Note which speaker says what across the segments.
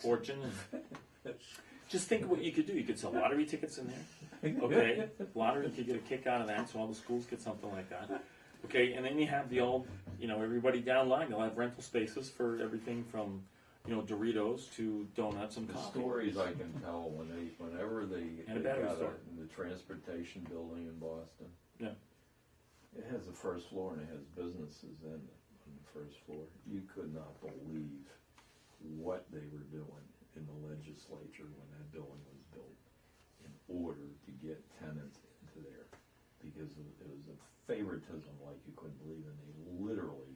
Speaker 1: fortune. And just think of what you could do. You could sell lottery tickets in there. Okay, lottery could get a kick out of that, so all the schools get something like that. Okay, and then you have the old, you know, everybody down line. They'll have rental spaces for everything from, you know, Doritos to donuts and
Speaker 2: The
Speaker 1: coffee.
Speaker 2: stories I can tell when they, whenever they,
Speaker 1: And a
Speaker 2: they
Speaker 1: battery
Speaker 2: got
Speaker 1: store.
Speaker 2: in the transportation building in Boston.
Speaker 1: Yeah.
Speaker 2: It has the first floor and it has businesses in it on the first floor. You could not believe what they were doing in the legislature when that building was built in order to get tenants into there because of- it was a favoritism like you couldn't believe, and they literally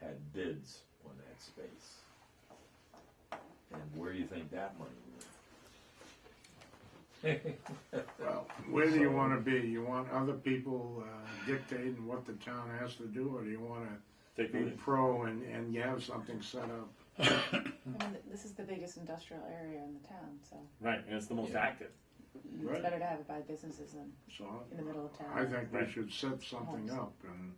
Speaker 2: had bids on that space. And where do you think that money went?
Speaker 3: Well, where do you wanna be? You want other people uh, dictating what the town has to do, or do you wanna
Speaker 1: Take the
Speaker 3: be
Speaker 1: lead.
Speaker 3: pro and, and you have something set up?
Speaker 4: I mean, this is the biggest industrial area in the town, so
Speaker 1: Right, and it's the most
Speaker 2: Yeah.
Speaker 1: active.
Speaker 3: Right.
Speaker 4: it's better to have it by businesses than
Speaker 3: So
Speaker 4: in the middle of town.
Speaker 3: I think we
Speaker 1: Right.
Speaker 3: should set something up and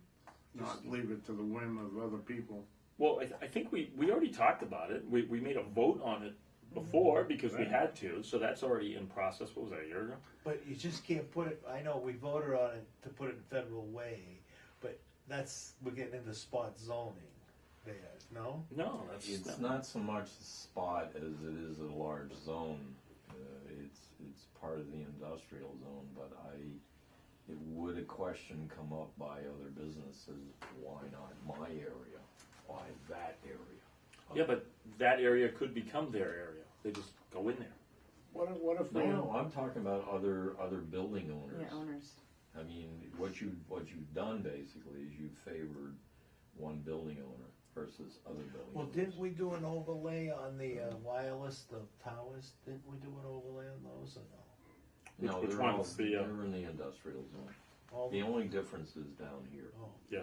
Speaker 3: not leave it to the whim of other people.
Speaker 1: Well, I, th- I think we, we already talked about it. We, we made a vote on it before because we had to, so that's already in process. What was that, a year ago?
Speaker 5: But you just can't put it, I know we voted on it to put it in federal way, but that's, we're getting into spot zoning there, no?
Speaker 1: No, that's
Speaker 2: It's
Speaker 1: no.
Speaker 2: not so much a spot as it is a large zone. Uh, It's, it's part of the industrial zone, but I, it would a question come up by other businesses, why not my area? Why that area?
Speaker 1: Yeah, but that area could become their area. They just go in there.
Speaker 3: What if, what if
Speaker 2: No,
Speaker 3: we,
Speaker 2: no, I'm talking about other, other building
Speaker 4: Yeah, owners.
Speaker 2: I mean, what you, what you've done basically is you've favored one building owner versus other building
Speaker 5: Well,
Speaker 2: owners.
Speaker 5: didn't we do an overlay on the uh, wireless, the towers, didn't we do an overlay on those or no?
Speaker 2: No,
Speaker 1: Which
Speaker 2: they're all,
Speaker 1: ones? The, uh,
Speaker 2: they're in the industrial zone.
Speaker 5: All-
Speaker 2: The only difference is down here.
Speaker 5: oh.
Speaker 1: Yeah.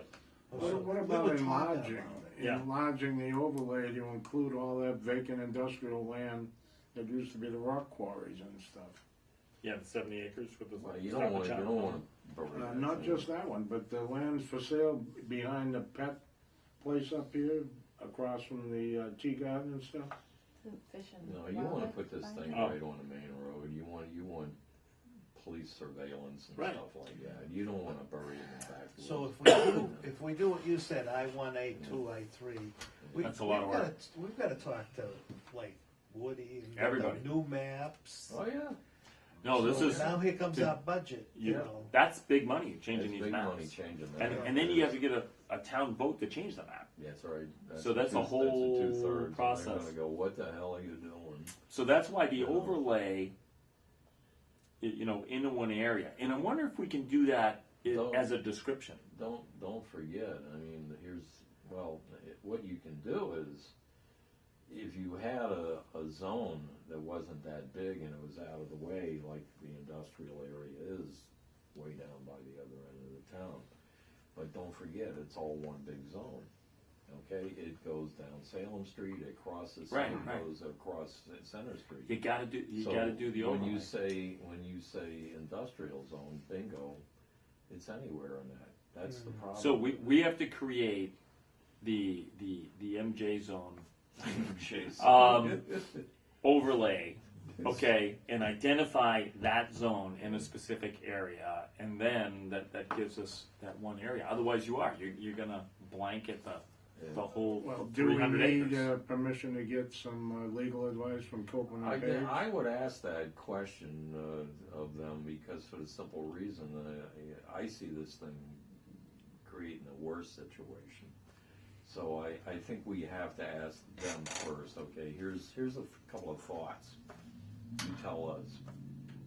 Speaker 3: what what
Speaker 5: We
Speaker 3: about
Speaker 5: were talking
Speaker 3: enlarging?
Speaker 5: about it.
Speaker 1: Yeah.
Speaker 3: Enlarging the overlay to include all that vacant industrial land that used to be the rock quarries and stuff.
Speaker 1: Yeah, the 70 acres with the.
Speaker 2: Well, you don't want to, you don't want to bury
Speaker 3: Uh,
Speaker 2: that.
Speaker 3: Not
Speaker 2: thing.
Speaker 3: just that one, but the land for sale behind the pet place up here, across from the uh, tea garden and stuff.
Speaker 4: Isn't Fish and
Speaker 2: No, you want to
Speaker 4: wildlife
Speaker 2: put this
Speaker 4: by
Speaker 2: thing
Speaker 4: now?
Speaker 1: Oh.
Speaker 2: right on the main road. You want, you want police surveillance and
Speaker 1: Right.
Speaker 2: stuff like that. You don't want to bury it in the back.
Speaker 5: So
Speaker 2: woods.
Speaker 5: if we do, if we do what you said, I one, I two, I three. we-
Speaker 1: That's a lot of
Speaker 5: we've
Speaker 1: work.
Speaker 5: gotta- We've gotta talk to like Woody. and get the
Speaker 1: Everybody.
Speaker 5: New maps.
Speaker 2: Oh, yeah.
Speaker 1: No, this
Speaker 5: So
Speaker 1: is.
Speaker 5: Now here comes
Speaker 1: to-
Speaker 5: our budget, you
Speaker 1: You,
Speaker 5: know.
Speaker 1: that's big money changing
Speaker 2: That's
Speaker 1: these
Speaker 2: big
Speaker 1: maps.
Speaker 2: money changing that.
Speaker 1: And, and then you have to get a, a town vote to change the map.
Speaker 2: That's right.
Speaker 1: So that's a
Speaker 2: two-
Speaker 1: whole
Speaker 2: that's a two-thirds, and They're
Speaker 1: process.
Speaker 2: gonna go, what the hell are you doing?
Speaker 1: So that's why the
Speaker 2: Yeah.
Speaker 1: overlay, y- you know, into one area. And I wonder if we can do that i-
Speaker 2: Don't.
Speaker 1: as a description.
Speaker 2: Don't, don't forget, I mean, here's, well, it- what you can do is, if you had a, a zone that wasn't that big and it was out of the way, like the industrial area is way down by the other end of the town. But don't forget, it's all one big zone, okay? It goes down Salem Street, it crosses,
Speaker 1: Right,
Speaker 2: and
Speaker 1: right.
Speaker 2: goes across Center Street.
Speaker 1: You gotta do. You
Speaker 2: So,
Speaker 1: gotta do the overlay.
Speaker 2: When you say, when you say industrial zone, bingo, it's anywhere in that, that's the problem.
Speaker 1: So we, we have to create the the the MJ zone
Speaker 2: Jeez.
Speaker 1: um, overlay, okay, and identify that zone in a specific area, and then that, that gives us that one area. Otherwise, you are you're, you're gonna blanket the the whole
Speaker 3: Well, do we
Speaker 1: 300
Speaker 3: need
Speaker 1: acres.
Speaker 3: uh, permission to get some uh, legal advice from Copeland
Speaker 2: I,
Speaker 3: and Page?
Speaker 2: I would ask that question uh, of them because for the simple reason that I, I see this thing creating a worse situation. So I, I think we have to ask them first, okay, here's, here's a f- couple of thoughts. You tell us.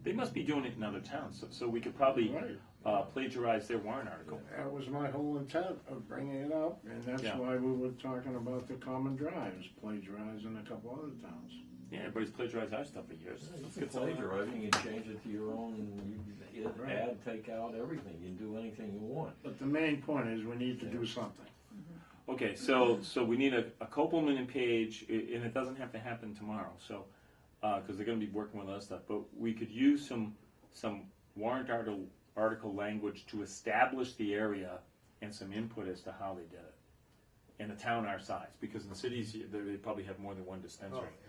Speaker 1: They must be doing it in other towns, so, so we could probably
Speaker 3: Right.
Speaker 1: uh, plagiarize their warrant article.
Speaker 3: That was my whole intent of bringing it up, and that's
Speaker 1: Yeah.
Speaker 3: why we were talking about the common drives, plagiarizing a couple other towns.
Speaker 1: Yeah, everybody's plagiarized our stuff for years.
Speaker 2: You
Speaker 1: Let's
Speaker 2: can
Speaker 1: get some of that.
Speaker 2: plagiarize, you can change it to your own, you can
Speaker 3: Right.
Speaker 2: add, take out, everything, you can do anything you want.
Speaker 3: But the main point is we need to do something.
Speaker 1: Okay, so so we need a, a Copelman and Page, i- and it doesn't have to happen tomorrow. So because they're going to be working with other stuff, but we could use some some warrant article article language to establish the area and some input as to how they did it in a town our size. Because in cities, you- they they probably have more than one dispensary.
Speaker 5: Oh,